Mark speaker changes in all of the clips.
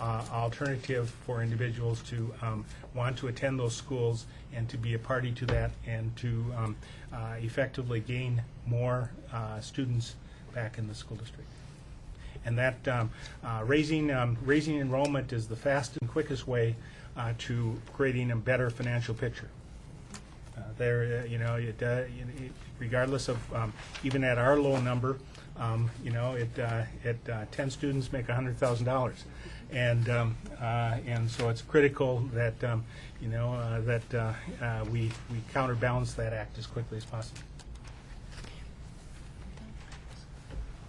Speaker 1: uh, alternative for individuals to um, want to attend those schools and to be a party to that and to um, uh, effectively gain more uh, students back in the school district. And that um, uh, raising, um, raising enrollment is the fast and quickest way uh, to creating a better financial picture. Uh, There, uh, you know, it, uh, you know, it- regardless of, um, even at our low number, um, you know, it, uh, it, uh, 10 students make $100,000. And, um, uh, and so it's critical that, um, you know, uh, that uh, uh, we we counterbalance that act as quickly as possible.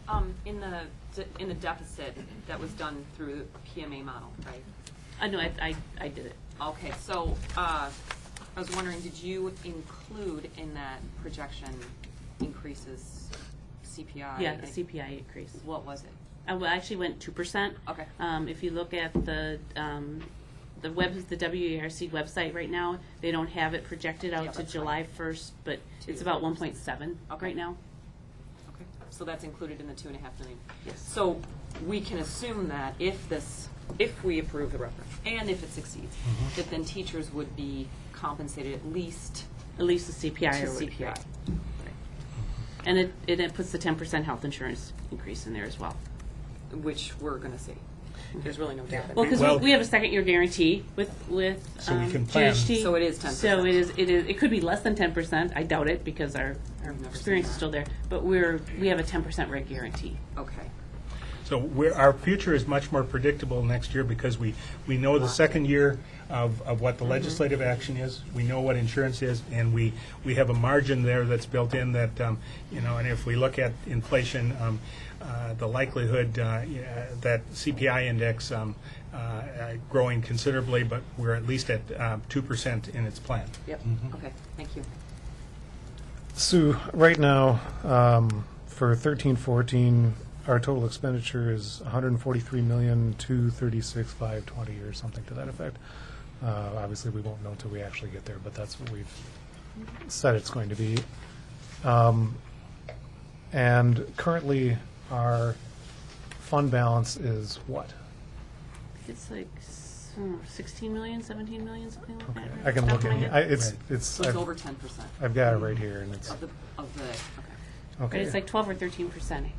Speaker 2: Um, in the, de- in the deficit that was done through the PMA model, right?
Speaker 3: Uh, no, I, I, I did it.
Speaker 2: Okay, so, uh, I was wondering, did you include in that projection increases CPI?
Speaker 3: Yeah, the CPI increase.
Speaker 2: What was it?
Speaker 3: I well, actually went two percent.
Speaker 2: Okay.
Speaker 3: Um, if you look at the, um, the web, the WERC website right now, they don't have it projected
Speaker 2: Yeah,
Speaker 3: out to
Speaker 2: that's fine.
Speaker 3: July first, but it's
Speaker 2: Two.
Speaker 3: about one point seven
Speaker 2: Okay.
Speaker 3: right now.
Speaker 2: Okay, so that's included in the two and a half million?
Speaker 3: Yes.
Speaker 2: So we can assume that if this, if we approve the reference, and if it succeeds,
Speaker 3: Mm-hmm.
Speaker 2: that then teachers would be compensated at least
Speaker 3: At least the
Speaker 2: to
Speaker 3: CPI or would be.
Speaker 2: CPI?
Speaker 3: And it, and it puts the ten percent health insurance increase in there as well.
Speaker 2: Which we're gonna see. There's really no doubt.
Speaker 3: Well,
Speaker 1: Well-
Speaker 3: because we have a second year guarantee with, with
Speaker 1: So we
Speaker 3: um,
Speaker 1: can plan.
Speaker 3: GHT.
Speaker 2: So it is 10%.
Speaker 3: So it is, it is, it could be less than ten percent, I doubt it, because our, our
Speaker 2: I've never
Speaker 3: experience
Speaker 2: seen
Speaker 3: is
Speaker 2: that.
Speaker 3: still there, but we're, we have a ten percent reg guarantee.
Speaker 2: Okay.
Speaker 1: So we're, our future is much more predictable next year because we, we know the second year of, of what the legislative action is, we know what insurance is, and we, we have a margin there that's built in that, um, you know, and if we look at inflation, um, uh, the likelihood, uh, yeah, that CPI index, um, uh, uh, growing considerably, but we're at least at, uh, two percent in its plan.
Speaker 2: Yep, okay, thank you.
Speaker 4: So right now, um, for thirteen fourteen, our total expenditure is one hundred and forty-three million, two thirty-six, five twenty, or something to that effect. Uh, obviously, we won't know until we actually get there, but that's what we've said it's going to be. Um, and currently, our fund balance is what?
Speaker 3: It's like s- hmm, sixteen million, seventeen million, something like that.
Speaker 4: I can
Speaker 3: Off
Speaker 4: look
Speaker 3: my
Speaker 4: at it.
Speaker 3: head.
Speaker 4: I, it's
Speaker 1: Right.
Speaker 4: it's.
Speaker 2: So it's
Speaker 4: I've,
Speaker 2: over ten percent
Speaker 4: I've got it right here, and it's
Speaker 2: of the, of the, okay.
Speaker 3: But
Speaker 4: okay.
Speaker 3: it's like twelve or thirteen percent, I think.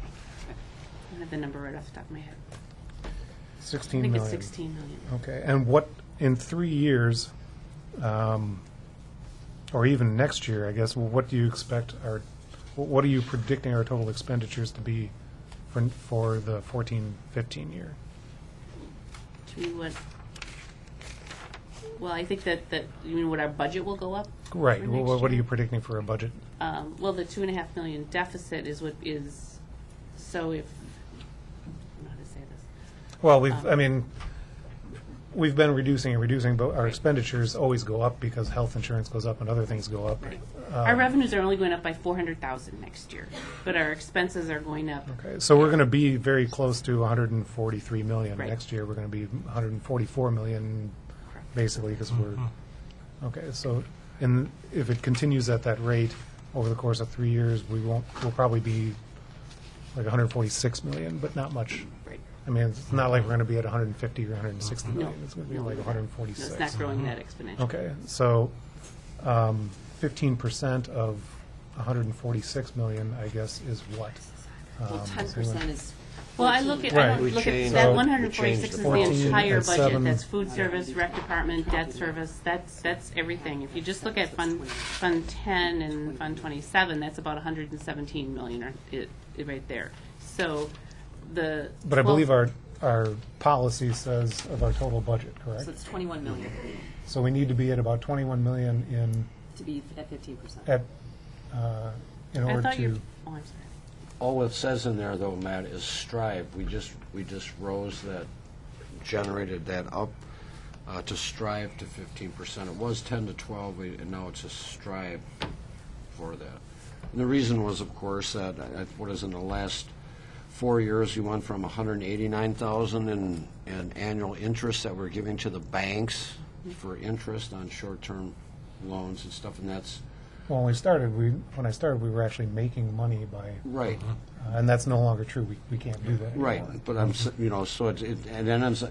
Speaker 3: I don't have the number right off the top of my head. I
Speaker 4: sixteen
Speaker 3: think
Speaker 4: million. Oh.
Speaker 3: it's sixteen million.
Speaker 4: Okay, and what, in three years, um, or even next year, I guess, what do you expect our, wh- what are you predicting our total expenditures to be for, for the fourteen, fifteen year?
Speaker 3: To me, what, well, I think that, that, you mean what our budget will go up?
Speaker 4: Right,
Speaker 3: For
Speaker 4: wh-
Speaker 3: next
Speaker 4: wh- what are
Speaker 3: year.
Speaker 4: you predicting for a budget?
Speaker 3: Um, well, the two and a half million deficit is what is, so if, I don't know how to say this.
Speaker 4: Well, we've,
Speaker 3: Um,
Speaker 4: I mean, we've been reducing and reducing, but our
Speaker 3: Right.
Speaker 4: expenditures always go up because health insurance goes up and other things go up.
Speaker 3: Our
Speaker 4: Um,
Speaker 3: revenues are only going up by four hundred thousand next year, but our expenses are going up.
Speaker 4: Okay, so we're gonna be very close to hundred and forty-three million.
Speaker 3: Right.
Speaker 4: Next year, we're gonna be hundred and forty-four million, basically, because we're,
Speaker 2: Mm-hmm.
Speaker 4: okay, so, and if it continues at that rate over the course of three years, we won't, we'll probably be like hundred and forty-six million, but not much.
Speaker 3: Right.
Speaker 4: I mean, it's not like we're gonna be at hundred and fifty or hundred and sixty
Speaker 2: Mm-hmm.
Speaker 3: No.
Speaker 4: million. It's gonna be like hundred and
Speaker 3: No,
Speaker 4: forty-six. Mm-hmm.
Speaker 3: It's not growing that exponentially.
Speaker 4: Okay, so um, fifteen percent of hundred and forty-six million, I guess, is what?
Speaker 2: Well,
Speaker 4: Um, so you
Speaker 2: ten
Speaker 4: wanna-
Speaker 2: percent is
Speaker 3: Well, I look at, I
Speaker 4: Right.
Speaker 3: don't
Speaker 5: We
Speaker 3: look at,
Speaker 5: changed-
Speaker 3: that
Speaker 4: So-
Speaker 3: one hundred
Speaker 5: we
Speaker 3: and forty-six
Speaker 5: changed
Speaker 3: is
Speaker 5: the
Speaker 3: the
Speaker 4: 14
Speaker 3: entire
Speaker 4: and
Speaker 3: budget,
Speaker 4: seven.
Speaker 3: that's food service, rec department, debt service, that's, that's everything. If you just look at Fund, Fund ten and Fund twenty-seven, that's about hundred and seventeen million, or, it, it right there. So, the.
Speaker 4: But I
Speaker 3: well,
Speaker 4: believe our, our policy says of our total budget, correct?
Speaker 2: So it's twenty-one million
Speaker 4: So we need to be at about 21 million in,
Speaker 2: to be at fifteen percent.
Speaker 4: at, uh, in
Speaker 3: I
Speaker 4: order
Speaker 3: thought you,
Speaker 4: to,
Speaker 3: oh, I'm sorry.
Speaker 5: All it says in there, though, Matt, is strive. We just, we just rose that, generated that up uh, to strive to fifteen percent. It was ten to twelve, we- and now it's a strive for that. And the reason was, of course, that, uh, what is in the last four years, we went from hundred and eighty-nine thousand in, in annual interest that we're giving to the banks for interest on short-term loans and stuff, and that's,
Speaker 4: when we started, we, when I started, we were actually making money by,
Speaker 5: right,
Speaker 4: uh, and that's no longer true. We, we can't do that anymore.
Speaker 5: Right, but I'm, s- you know, so it's, it- and then I'm, s-